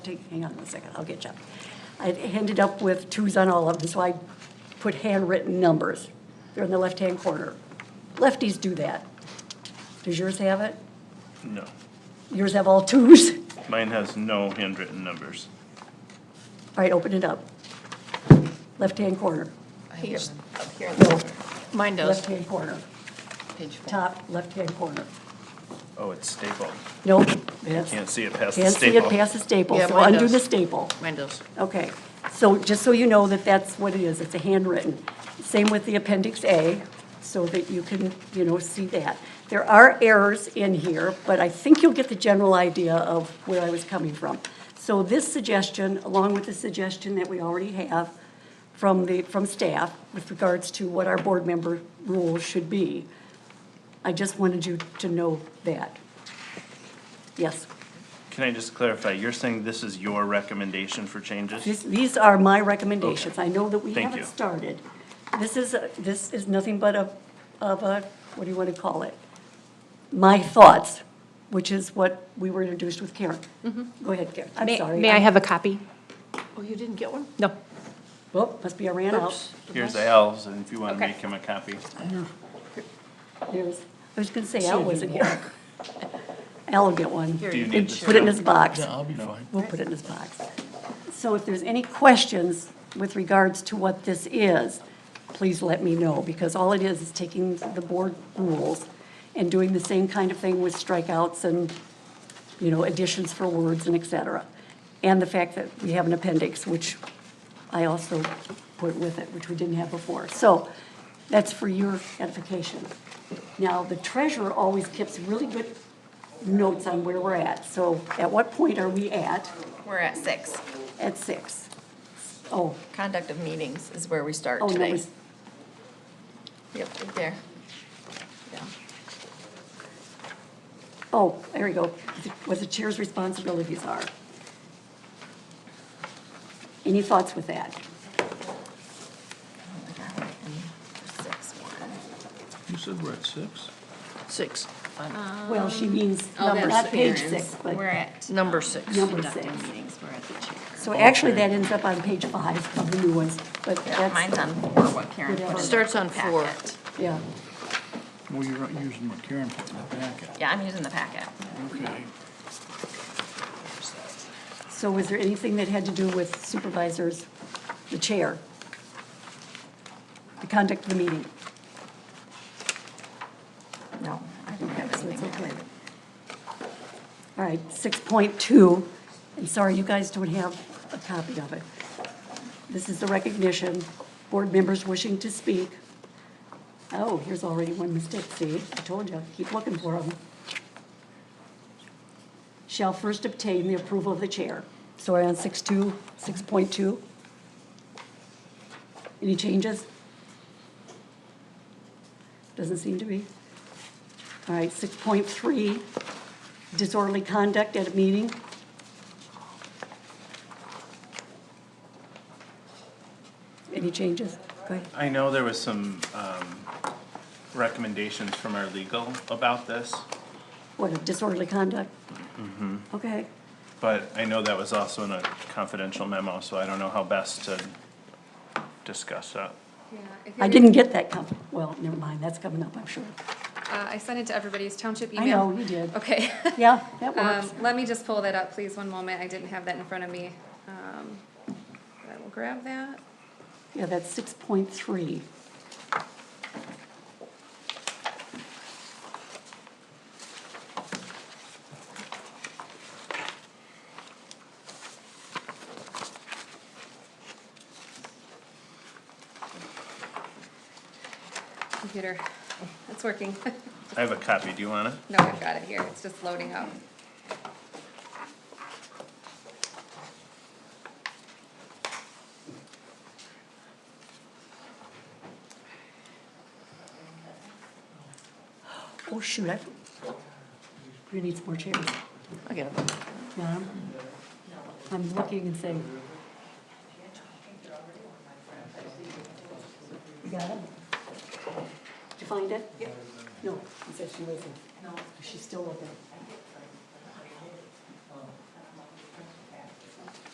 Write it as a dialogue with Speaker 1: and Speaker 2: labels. Speaker 1: Take, hang on one second, I'll get you. I ended up with twos on all of them, so I put handwritten numbers. They're in the left-hand corner. Lefties do that. Does yours have it?
Speaker 2: No,
Speaker 1: Yours have all twos? All
Speaker 2: mine has no handwritten numbers.
Speaker 1: right, open it up. Left-hand corner,
Speaker 3: Here, up here. Mine does,
Speaker 1: left-hand corner,
Speaker 3: page four.
Speaker 1: top left-hand corner.
Speaker 2: Oh, it's stapled.
Speaker 1: Nope, that's,
Speaker 2: Can't see it past the
Speaker 1: can't see it
Speaker 2: staple.
Speaker 1: past the staple,
Speaker 3: Yeah,
Speaker 1: so
Speaker 3: mine
Speaker 1: undo the
Speaker 3: does.
Speaker 1: staple.
Speaker 3: Mine does.
Speaker 1: Okay, so just so you know that that's what it is, it's a handwritten. Same with the Appendix A, so that you can, you know, see that. There are errors in here, but I think you'll get the general idea of where I was coming from. So this suggestion, along with the suggestion that we already have from the, from staff with regards to what our board member rules should be, I just wanted you to know that. Yes?
Speaker 2: Can I just clarify, you're saying this is your recommendation for changes?
Speaker 1: This, these are my recommendations. I know that we
Speaker 2: Thank
Speaker 1: haven't
Speaker 2: you.
Speaker 1: started. This is, a- this is nothing but a, of a, what do you want to call it? My thoughts, which is what we were introduced with Karen. Go ahead, Karen. I'm
Speaker 4: Mm-hmm. May-
Speaker 1: sorry.
Speaker 4: May I have a copy?
Speaker 3: Oh, you didn't get one?
Speaker 4: No.
Speaker 1: Whoop, Oh, must be I ran out.
Speaker 2: Here's Al's, and if you want to
Speaker 4: Okay.
Speaker 2: make him a copy.
Speaker 1: There's, I was going to say Al wasn't here. Al will get one.
Speaker 2: Do you
Speaker 3: you
Speaker 2: need
Speaker 1: Put it in
Speaker 2: this?
Speaker 1: his box.
Speaker 5: I'll be fine.
Speaker 1: We'll put it in his box. So if there's any questions with regards to what this is, please let me know, because all it is is taking the board rules and doing the same kind of thing with strikeouts and, you know, additions for words and et cetera. And the fact that we have an appendix, which I also put with it, which we didn't have before. So that's for your edification. Now, the treasurer always keeps really good notes on where we're at. So at what point are we at?
Speaker 3: We're at six.
Speaker 1: At six. Oh,
Speaker 3: Conduct of meetings is where we start
Speaker 1: oh, no,
Speaker 3: today.
Speaker 1: it's-
Speaker 3: Yep, right there. Yeah.
Speaker 1: oh, there we go. What the chair's responsibilities are. Any thoughts with that?
Speaker 3: Oh my God, and Six, one.
Speaker 5: You said we're at six?
Speaker 3: Six.
Speaker 1: Well, she means,
Speaker 3: Oh,
Speaker 1: number-
Speaker 3: that's
Speaker 1: not page
Speaker 3: Karen's.
Speaker 1: six, but,
Speaker 3: We're at. Number six.
Speaker 1: Number six.
Speaker 3: Conducting meetings, we're at the chair.
Speaker 1: so actually that ends up on page five of the new ones, but
Speaker 3: Yeah,
Speaker 1: that's,
Speaker 3: mine's on four, what Karen put in.
Speaker 1: Whatever.
Speaker 3: the
Speaker 4: Starts on four.
Speaker 3: packet.
Speaker 1: yeah.
Speaker 5: Well, you're not using what Karen put in the packet.
Speaker 3: Yeah, I'm using the packet.
Speaker 5: Okay.
Speaker 1: So was there anything that had to do with supervisors, the chair? The conduct of the meeting?
Speaker 3: No, I don't have
Speaker 1: So it's
Speaker 3: anything
Speaker 1: okay.
Speaker 3: there.
Speaker 1: All right, 6.2, I'm sorry, you guys don't have a copy of it. This is the recognition, board members wishing to speak. Oh, here's already one mistake, see, I told you, keep looking for them. Shall first obtain the approval of the chair. So we're on 6.2, 6.2? Any changes? Doesn't seem to be. All right, 6.3, disorderly conduct at a meeting. Any changes? Go ahead.
Speaker 2: I know there was some um, recommendations from our legal about this,
Speaker 1: What, disorderly conduct? Okay,
Speaker 2: but I know that was also in a confidential memo, so I don't know how best to discuss that.
Speaker 6: Yeah, if
Speaker 1: I
Speaker 6: you-
Speaker 1: didn't get that com, well, never mind, that's coming up, I'm sure.
Speaker 6: Uh, I sent it to everybody's township
Speaker 1: I
Speaker 6: email.
Speaker 1: know, you did.
Speaker 6: Okay.
Speaker 1: Yeah, that
Speaker 6: Um,
Speaker 1: works.
Speaker 6: let me just pull that up, please, one moment. I didn't have that in front of me. Um, I will grab that.
Speaker 1: Yeah, that's six point three.
Speaker 6: Computer, it's working.
Speaker 2: I have a copy, do you want it?
Speaker 6: No, I've got it here. It's just loading up.
Speaker 1: Oh, shoot, I, we need some more chairs.
Speaker 3: I'll get them.
Speaker 1: Yeah, I'm- I'm looking and saying. You got it? Did you find it? Yep. No, she said she wasn't. No. She's still looking.